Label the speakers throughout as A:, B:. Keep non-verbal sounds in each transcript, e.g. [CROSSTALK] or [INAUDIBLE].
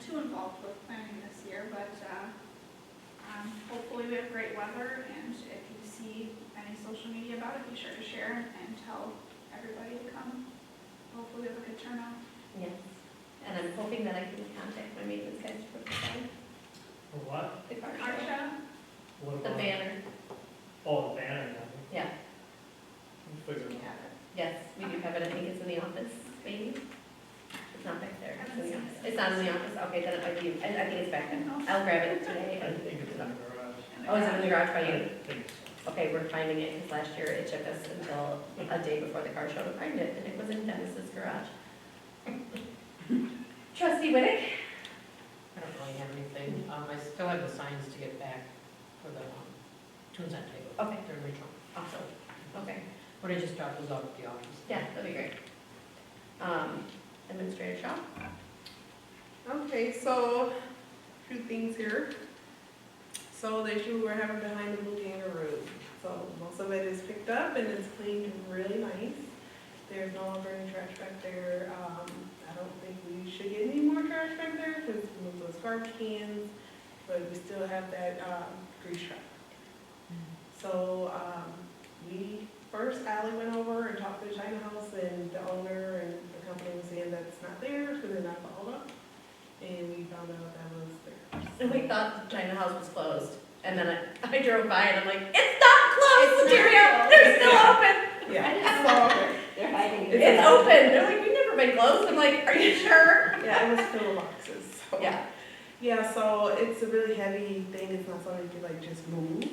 A: too involved with planning this year, but, uh, um, hopefully we have great weather, and if you see any social media about it, be sure to share and tell everybody to come. Hopefully we have a good turnout.
B: Yes, and I'm hoping that I can contact my maintenance guys to provide
C: For what?
B: the car
A: Art
B: show.
A: show?
C: What
B: The
C: about?
B: banner,
C: Oh, the banner, yeah.
B: yeah,
C: We'll figure it out.
A: Yeah.
B: yes, we do have it, I think it's in the office, maybe? It's not back there, it's in the
A: Haven't
B: office,
A: seen it.
B: it's not in the office, okay, then it might be, I, I think it's back then, I'll grab it today.
C: I think it's in the garage.
B: Oh, is it in the garage by you?
C: I think so.
B: Okay, we're finding it, because last year it took us until a day before the car show to find it, and it was in Dennis's garage. [LAUGHS] Trustee Whitick?
D: I don't really have anything. Um, I still have the signs to get back for the, um, tunes on table.
B: Okay.
D: They're original.
B: Awesome, okay,
D: What I just dropped was off at the office.
B: yeah, that'd be great. Um, Administrator Shaw?
E: Okay, so, a few things here. So the issue we're having behind the Blueganger Road, so most of it is picked up and it's cleaned really nice. There's no longer any trash back there, um, I don't think we should get any more trash back there, because we moved those garbage cans, but we still have that, um, grease trap. So, um, we, first Ally went over and talked to the China House and the owner and the company was saying that's not theirs, because they're not followed up. And we found out that was theirs.
B: And we thought the China House was closed, and then I, I drove by and I'm like, it's not closed,
E: It's not
B: Daria,
E: closed."
B: they're still open,
A: uh,
E: Yeah, so,
F: They're hiding. it.
B: it's open, they're like, we've never been closed, I'm like, are you sure?
E: yeah, it was full of boxes, so.
B: Yeah,
E: Yeah, so it's a really heavy thing, it's not something you can like just move.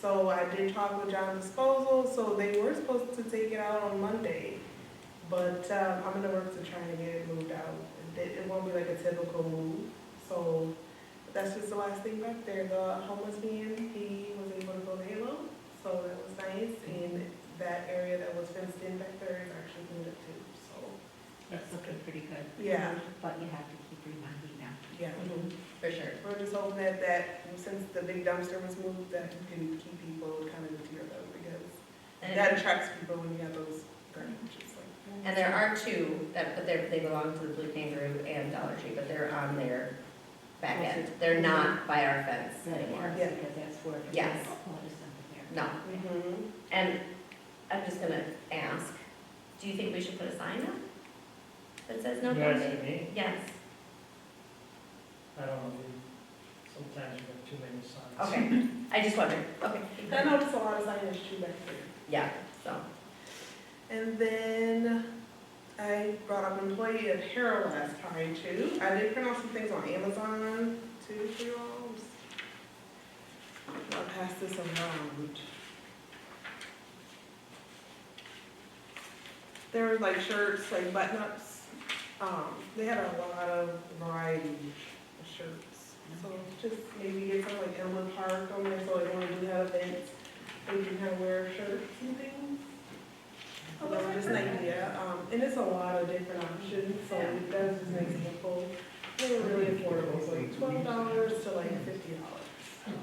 E: So I did talk with John Disposal, so they were supposed to take it out on Monday. But um, I'm in the works of trying to get it moved out. It it won't be like a typical move, so that's just the last thing back there. The homeless man, he was able to go to Halo, so that was nice. And that area that was fenced in back there is actually cleaned up too, so,
F: It's looking pretty good.
E: Yeah.
F: But you have to keep reminding them.
E: yeah.
B: Mm-hmm. for sure.
E: We're just hoping that, that since the big dumpster was moved, that you can keep people kind of near though, because that
B: And,
E: attracts people when you have those garnishes like.
B: and there are two that, but they're, they belong to the Blue Kangaroo and Dollar Tree, but they're on their back end, they're not by our fence anymore.
E: Yeah.
F: Because that's where. it is.
B: Yes.
F: Oh, there's something there.
B: No,
E: Mhm.
B: and I'm just gonna ask, do you think we should put a sign up that says no
C: You guys
B: dumping?
C: see me?
B: Yes,
C: I don't know, we- sometimes you have too many signs.
B: okay, I just wondered, okay.
E: I noticed a lot of signage too back there.
B: Yeah, so,
E: And then I brought up employee of Harold last time too. I did print out some things on Amazon too for you all. Just- I'll pass this around. There were like shirts, like button ups. Um, they had a lot of variety of shirts. So just maybe get some like Elmwood Park on there, so like when we do have events, we can kind of wear shirts and things.
A: Oh,
E: Well,
A: that's
E: just an idea, um, and it's a lot of different options, so that's just an example. They were really affordable, so like twelve dollars to like fifty dollars.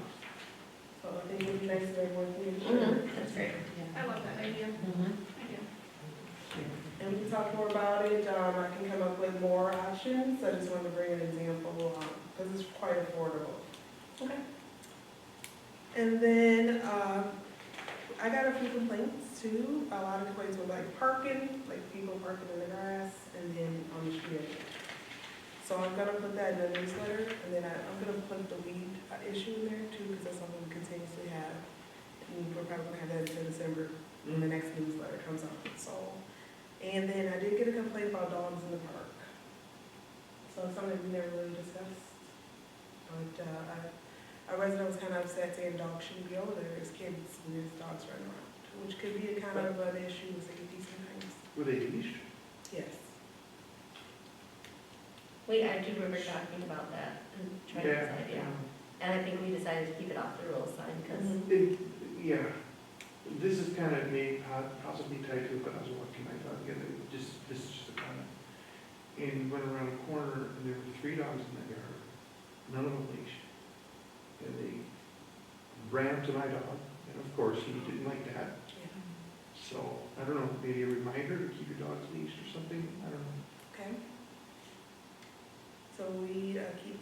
E: So I think it would be nice to everyone to
B: mhm, that's great.
A: I love that idea,
D: Mhm.
A: I do.
E: And we can talk more about it, um, I can come up with more options, I just wanted to bring an example, um, because it's quite affordable.
A: Okay.
E: And then, um, I got a few complaints too, a lot of complaints were like parking, like people parking in the grass and then on the street. So I'm gonna put that in the newsletter, and then I, I'm gonna put the weed uh, issue in there too, because that's something we continuously have. And we're probably gonna have that until December, when the next newsletter comes out, so. And then I did get a complaint about dogs in the park. So it's something we never really discussed. But, uh, I a resident was kind of upset saying dogs shouldn't be over there, there's kids and there's dogs running around, which could be a kind of an issue with safety sometimes.
G: With a leash?
E: Yes.
B: Wait, I do remember talking about that and trying to
G: Yeah.
B: decide, yeah. And I think we decided to keep it off the rules sign because,
G: It, yeah, this is kind of may po- possibly tied to what I was watching, I thought, again, it just, this is just a comment. And went around a corner, and there were three dogs in that yard, none of them leashed. And they ran to my dog, and of course, he didn't like that, so, I don't know, maybe a reminder to keep your dogs leashed or something, I don't know.
E: Okay. So we uh, keep